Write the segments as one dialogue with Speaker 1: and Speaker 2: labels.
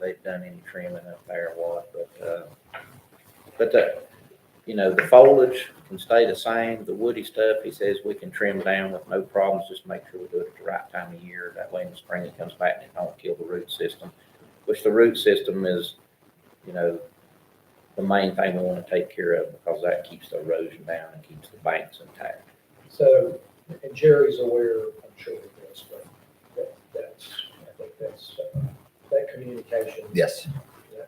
Speaker 1: they've done any trimming up there or what, but, uh, but the, you know, the foliage can stay the same, the woody stuff, he says we can trim down with no problems, just make sure we do it at the right time of year, that way in the spring it comes back and it don't kill the root system, which the root system is, you know, the main thing we want to take care of because that keeps the erosion down and keeps the banks intact.
Speaker 2: So, and Jerry's aware, I'm sure of this, but that, that's, I think that's, uh, that communication.
Speaker 3: Yes.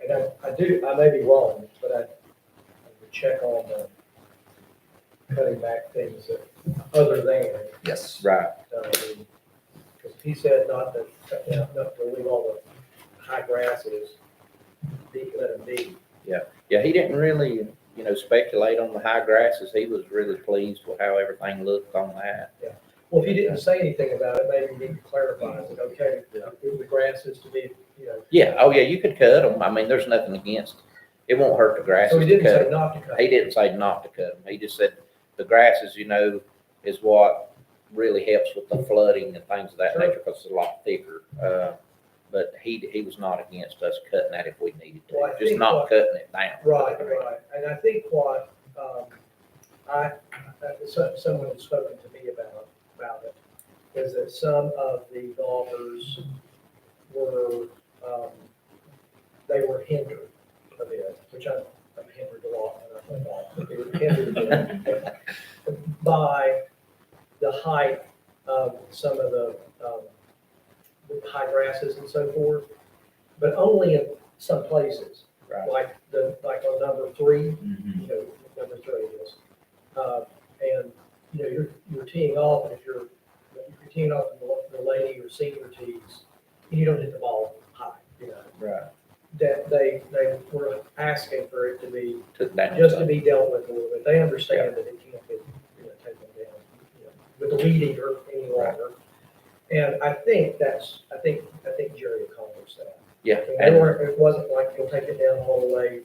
Speaker 2: And I, I do, I may be wrong, but I, I would check on the cutting back things that, other than, uh,
Speaker 3: Yes.
Speaker 1: Right,
Speaker 2: because he said not to, cut down, not to leave all the high grasses, be, let them be.
Speaker 1: yeah, he didn't really, you know, speculate on the high grasses, he was really pleased with how everything looked on that.
Speaker 2: Well, if he didn't say anything about it, maybe we need to clarify, is it okay, if the grass is to be, you know.
Speaker 1: Yeah, oh yeah, you could cut them, I mean, there's nothing against, it won't hurt the
Speaker 2: So
Speaker 1: grasses
Speaker 2: he
Speaker 1: to
Speaker 2: didn't
Speaker 1: cut
Speaker 2: say
Speaker 1: 'em.
Speaker 2: not to cut.
Speaker 1: He didn't say not to cut them, he just said the grasses, you know, is what really helps with the flooding and things of that
Speaker 2: Sure.
Speaker 1: nature because it's a lot thicker. Uh, But he, he was not against us cutting that if we needed
Speaker 2: Well, I
Speaker 1: to, just
Speaker 2: think
Speaker 1: not
Speaker 2: what-
Speaker 1: cutting it down.
Speaker 2: Right, right, and I think what, um, I, I- so- someone has spoken to me about, about it, is that some of the golfers were, um, they were hindered a bit, which I'm, I'm hindered a lot when I play golf, but they were hindered a bit by the height of some of the, um, the high grasses and so forth, but only in some places
Speaker 1: Right.
Speaker 2: like the, like on number three,
Speaker 1: Mhm.
Speaker 2: you know, number three is. Uh, and, you know, you're, you're teeing off, and if you're, if you're teeing off in the, the lady or senior tees, you don't hit the ball high, you know.
Speaker 1: Right.
Speaker 2: That they, they were asking for it to be,
Speaker 1: Took down.
Speaker 2: just to be dealt with a little bit, they understand that it can't be, you know, taken down, you know, with the lead eater any longer. And I think that's, I think, I think Jerry accomplished that.
Speaker 1: Yeah,
Speaker 2: And they
Speaker 1: and,
Speaker 2: weren't, it wasn't like you'll take it down all the way,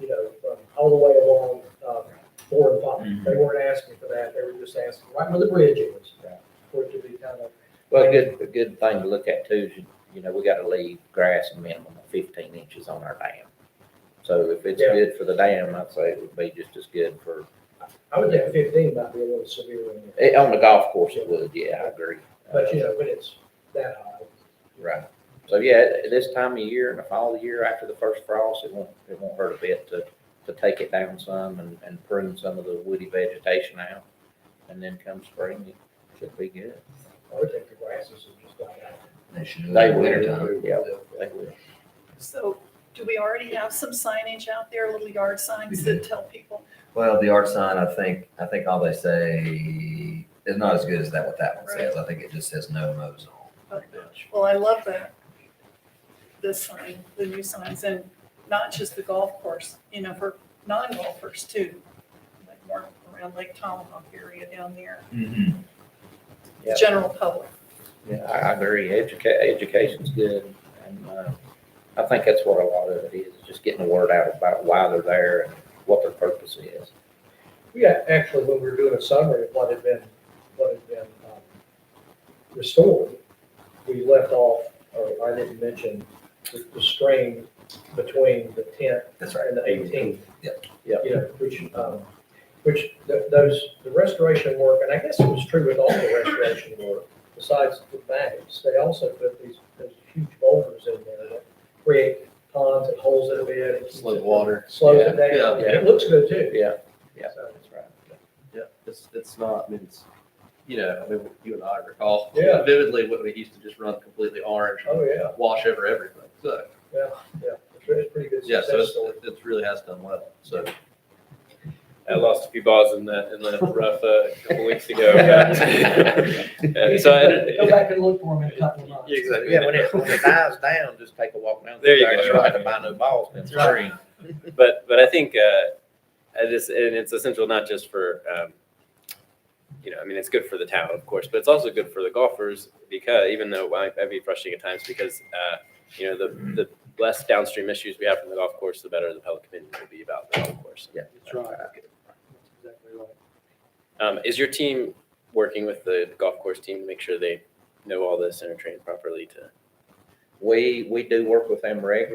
Speaker 2: you know, from all the way along, uh, four and
Speaker 1: Mhm.
Speaker 2: five. They weren't asking for that, they were just asking right where the bridge is,
Speaker 1: Right.
Speaker 2: for it to be kind of.
Speaker 1: well, a good, a good thing to look at too is, you- you know, we gotta leave grass a minimum of fifteen inches on our dam. So if it's
Speaker 2: Yeah.
Speaker 1: good for the dam, I'd say it would be just as good for,
Speaker 2: I would think fifteen might be a little severe, in there,
Speaker 1: eh, on the golf course it would, yeah, I agree. Uh,
Speaker 2: but you know, when it's that high.
Speaker 1: Right. So yeah, at this time of year, in the fall of the year, after the first frost, it won't, it won't hurt a bit to, to take it down some and, and prune some of the woody vegetation out. And then come spring, it should be good.
Speaker 2: I would think the grasses would just die out.
Speaker 3: They should do
Speaker 1: They
Speaker 3: it in
Speaker 1: will,
Speaker 3: wintertime.
Speaker 1: yeah, they will.
Speaker 4: So do we already have some signage out there, little yard signs that tell people?
Speaker 3: Well, the art sign, I think, I think all they say is not as good as that, what that one says. I think it just says no mows on.
Speaker 4: Okay. Well, I love that, this sign, the new signs, and not just the golf course, you know, for non-golfers too. Like more around Lake Tomahawk area down there,
Speaker 2: Mm-hmm.
Speaker 1: Yeah.
Speaker 4: general public.
Speaker 1: Yeah, I I agree. Educa- education's good. And, uh, I think that's what a lot of it is, just getting the word out about why they're there and what their purpose is.
Speaker 2: Yeah, actually, when we were doing a summary of what had been, what had been um, restored, we left off, or I didn't mention, the the string between the tenth
Speaker 3: That's right.
Speaker 2: and the eighteenth.
Speaker 3: Yep.
Speaker 1: Yep.
Speaker 2: You know, which, um, which th- those, the restoration work, and I guess it was true with all the restoration work, besides the banks, they also put these, those huge boulders in there that create ponds and holes in a bit. It
Speaker 5: Slow water.
Speaker 2: Slows it down,
Speaker 1: Yeah.
Speaker 2: it looks good too.
Speaker 1: Yeah, yeah,
Speaker 2: So-
Speaker 1: that's right.
Speaker 5: Yeah, it's, it's not, I mean, it's, you know, I mean, you and I recall
Speaker 2: Yeah.
Speaker 5: vividly when we used to just run completely orange,
Speaker 2: Oh, yeah.
Speaker 5: wash over everything. So,
Speaker 2: Yeah, yeah, it's a pretty good
Speaker 5: yeah, so
Speaker 2: success
Speaker 5: it's,
Speaker 2: story.
Speaker 5: it really has done well. So,
Speaker 6: I lost a few balls in the in the rough uh, a couple weeks ago. but- Uh, so I did-
Speaker 2: Go back and look for them in a couple of months.
Speaker 6: Yeah, exactly.
Speaker 1: Yeah, when it, when it dies down, just take a walk down.
Speaker 6: There you
Speaker 1: I
Speaker 6: go.
Speaker 1: Try to buy no balls in
Speaker 2: That's right.
Speaker 1: spring.
Speaker 6: But but I think uh, I just and it's essential not just for um, you know I mean it's good for the town of course, but it's also good for the golfers because even though I might be frustrating at times because uh, you know the the less downstream issues we have from the golf course, the better the public opinion will be about the golf course.
Speaker 1: Yeah.
Speaker 2: That's right. Exactly right.
Speaker 6: Um, is your team working with the golf course team to make sure they know all this and are trained properly to?
Speaker 1: We, we do work with them regularly.